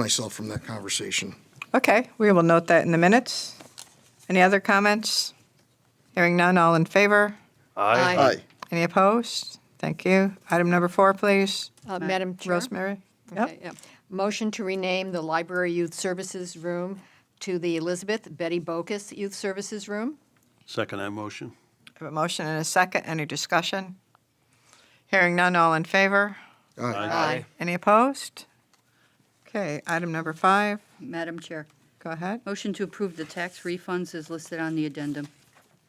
myself from that conversation. Okay, we will note that in the minutes. Any other comments? Hearing none, all in favor? Aye. Any opposed? Thank you. Item number four, please. Uh, Madam Chair? Rosemary? Okay, yeah. Motion to rename the Library Youth Services Room to the Elizabeth Betty Bocas Youth Services Room. Second that motion. I have a motion and a second. Any discussion? Hearing none, all in favor? Aye. Any opposed? Okay, item number five, Madam Chair, go ahead. motion to approve the tax refunds is listed on the addendum.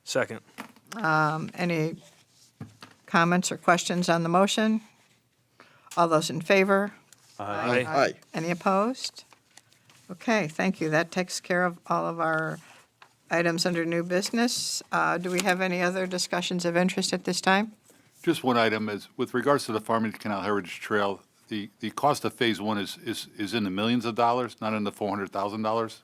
Second. Um, Any comments or questions on the motion? All those in favor? Aye. Aye. Any opposed? Okay, thank you. That takes care of all of our items under new business. Uh, Do we have any other discussions of interest at this time? Just one item is, with regards to the Farmington Canal Heritage Trail, the, the cost of Phase One is, is, is in the millions of dollars, not in the four hundred thousand dollars.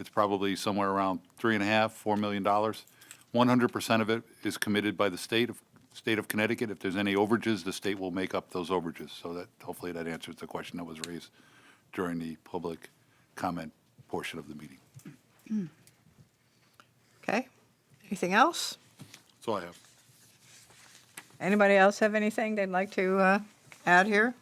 It's probably somewhere around three and a half, four million dollars. One hundred percent of it is committed by the state of, state of Connecticut. If there's any overages, the state will make up those overages. So that, hopefully that answers the question that was raised during the public comment portion of the meeting. Okay, anything else? That's all I have. Anybody else have anything they'd like to uh, add here?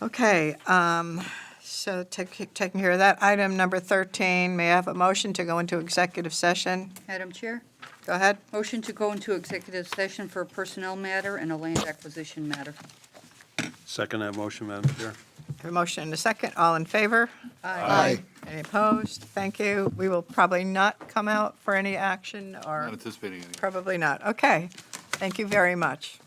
Okay, um, so take- taking care of that, item number 13, may I have a motion to go into executive session? Madam Chair, Go ahead. motion to go into executive session for a personnel matter and a land acquisition matter. Second that motion, Madam Chair. Have A motion and a second, all in favor? Aye. Any opposed? Thank you. We will probably not come out for any action, or Not anticipating any. probably not. Okay, thank you very much.